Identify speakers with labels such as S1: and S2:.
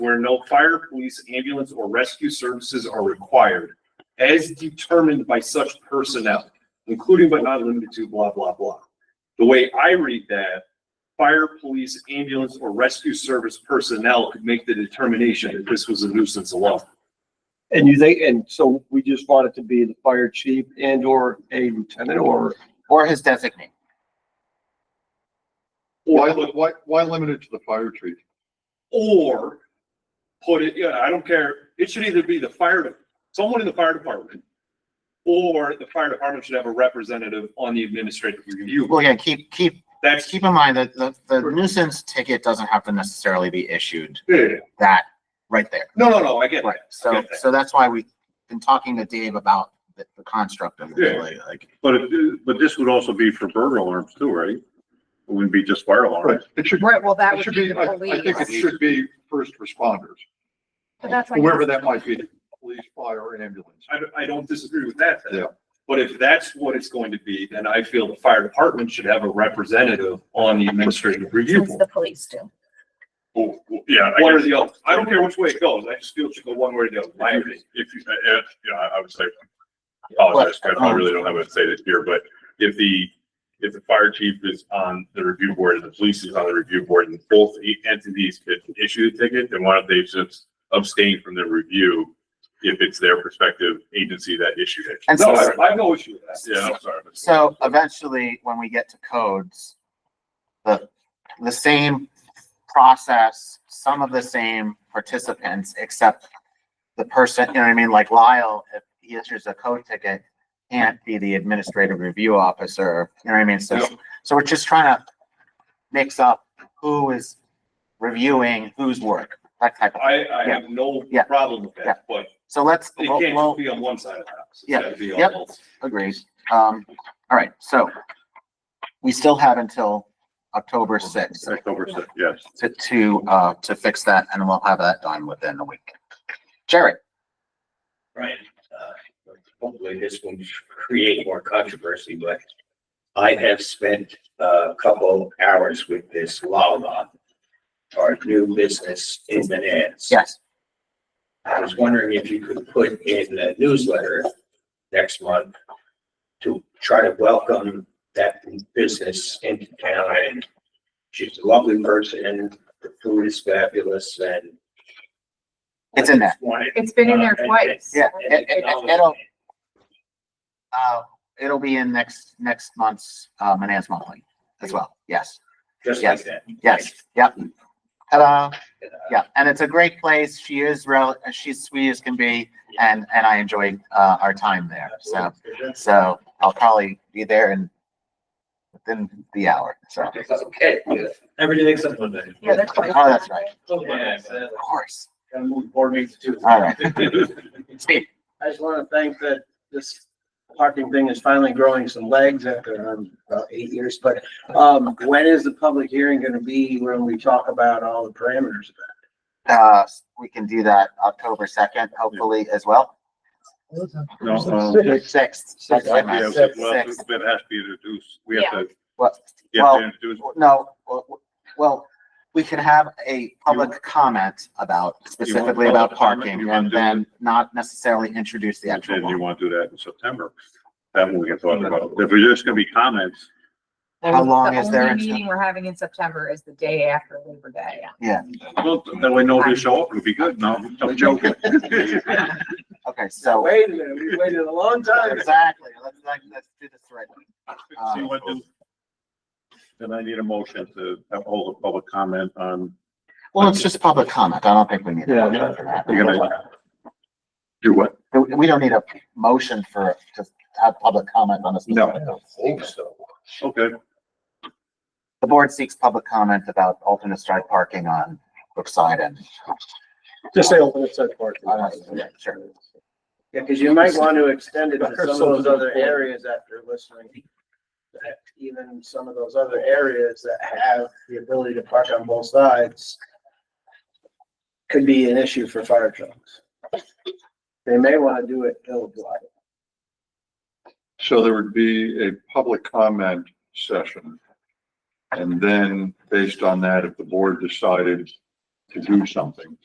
S1: where no fire, police, ambulance, or rescue services are required as determined by such personnel, including but not limited to blah, blah, blah. The way I read that, fire, police, ambulance, or rescue service personnel could make the determination that this was a nuisance alone.
S2: And you think, and so we just want it to be the fire chief and or a lieutenant or,
S3: or his designate.
S4: Why,
S1: Or,
S4: li- why, why limited to the fire chief?
S1: or put it, yeah, I don't care, it should either be the fire, de- someone in the fire department, or the fire department should have a representative on the administrative review.
S3: Well, again, keep, keep,
S1: That's,
S3: keep in mind that the, the nuisance ticket doesn't have to necessarily be issued
S1: yeah,
S3: that, right there.
S1: no, no, no, I get
S3: Right,
S1: that.
S3: so, so that's why we've been talking to Dave about the, the construct of it,
S1: Yeah.
S3: really, like,
S5: But it, but this would also be for burglar alarms too, right? It wouldn't be just fire
S4: Right,
S5: alarms.
S4: it should,
S6: Right, well, that
S4: it
S6: would
S4: should
S6: be
S4: be,
S6: the
S4: I, I think it
S6: police.
S4: should be first responders,
S6: But that's like-
S4: whoever that might be, police, fire, or ambulance.
S1: I, don't- I don't disagree with that. then.
S4: Yeah.
S1: But if that's what it's going to be, then I feel the fire department should have a representative on the administrative review
S6: Since
S1: board.
S6: the police do.
S5: Well, well, Yeah, I
S1: One or
S5: guess
S1: the other. I don't care which way it goes. I just feel it should go one way or the other. My
S5: if
S1: opinion.
S5: you, if you, if, you know, I I would say, apologize, but I really don't have what to say this here, but if the, if the fire chief is on the review board and the police is on the review board and both e- entities could issue the ticket, then why don't they just abstain from the review if it's their respective agency that issued it?
S3: and
S1: No,
S3: so,
S1: I I have no issue with that.
S5: Yeah, I'm sorry. but-
S3: so eventually, when we get to codes, the, the same process, some of the same participants, except the person, you know what I mean, like Lyle, if he issues a code ticket, can't be the administrative review officer, you know what I mean, so, so we're just trying to mix up who is reviewing whose work, that type of,
S1: I, I have no
S3: Yeah.
S1: problem with
S3: Yeah.
S1: that, but
S3: so let's,
S1: it
S3: we'll-
S1: can't
S3: we'll-
S1: just be on one side of the house. It's
S3: Yeah.
S1: gotta be on
S3: Yep.
S1: both.
S3: Agreed. Um, all right, so we still have until October sixth
S5: October sixth, yes.
S3: to, to, uh, to fix that and we'll have that done within a week. Jared,
S7: Right. uh, Hopefully this will create more controversy, but I have spent a couple hours with this Lala, our new business in Manans.
S3: yes,
S7: I was wondering if you could put in a newsletter next month to try to welcome that business into town. And she's a lovely person, the food is fabulous and.
S3: It's in there.
S7: Wanted-
S6: It's been in there
S7: Uh,
S6: twice.
S3: Yeah, it- it- it'll- uh, it'll be in next, next month's, uh, Manans Monthly as well. Yes,
S7: Just like
S3: Yes.
S7: that.
S3: yes, yep. ta
S7: Like, uh,
S3: Yeah, and it's a great place. She is real, she's sweet as can be and, and I enjoyed, uh, our time there. So. So I'll probably be there in within the hour. So, oh,
S7: Okay.
S8: Every day except Monday.
S6: Yeah, that's twice.
S3: that's right. Of course. All right. Steve,
S8: I just want to thank that this parking thing is finally growing some legs after um, about eight years. But um, when is the public hearing going to be when we talk about all the parameters?
S3: uh, we can do that October second, hopefully as well.
S5: No, um,
S3: Sixth. Sixth, I
S5: yeah,
S3: meant.
S5: well, that has
S3: Sixth.
S5: to be introduced. We have to,
S3: Well,
S5: you have
S3: well,
S5: to introduce
S3: no, well, well, we can have a public comment about specifically about
S5: public comment?
S3: parking
S5: You
S3: and
S5: want to-
S3: then not necessarily introduce the actual
S5: And you
S3: one.
S5: want to do that in September. That one we can talk about. If we're just gonna be comments,
S3: How long
S6: The
S3: is there?
S6: only
S3: until-
S6: Meeting we're having in September is the day after Labor Day.
S5: well, that way nobody show up, it'll be good. No, I'm joking.
S3: Okay, so.
S8: Wait a minute, we waited a long time.
S3: Exactly. Let's, let's let's do this right. Uh,
S5: See what do- Then I need a motion to hold a public comment on,
S3: Well, it's just public comment. I don't think we need. a
S2: Yeah.
S3: motion for that.
S5: you're gonna do what?
S3: We we don't need a motion for, to have public comment on this.
S7: Hope so.
S5: Okay,
S3: The board seeks public comment about alternate striped parking on Brookside and.
S2: just say open it, set parking.
S3: I don't know, Sure.
S8: Yeah, because you might want to extend it to some of those other areas after listening. That Even some of those other areas that have the ability to park on both sides could be an issue for fire trucks. They may want to do it ill-advised.
S4: So there would be a public comment session. And then, based on that, if the board decided to do something,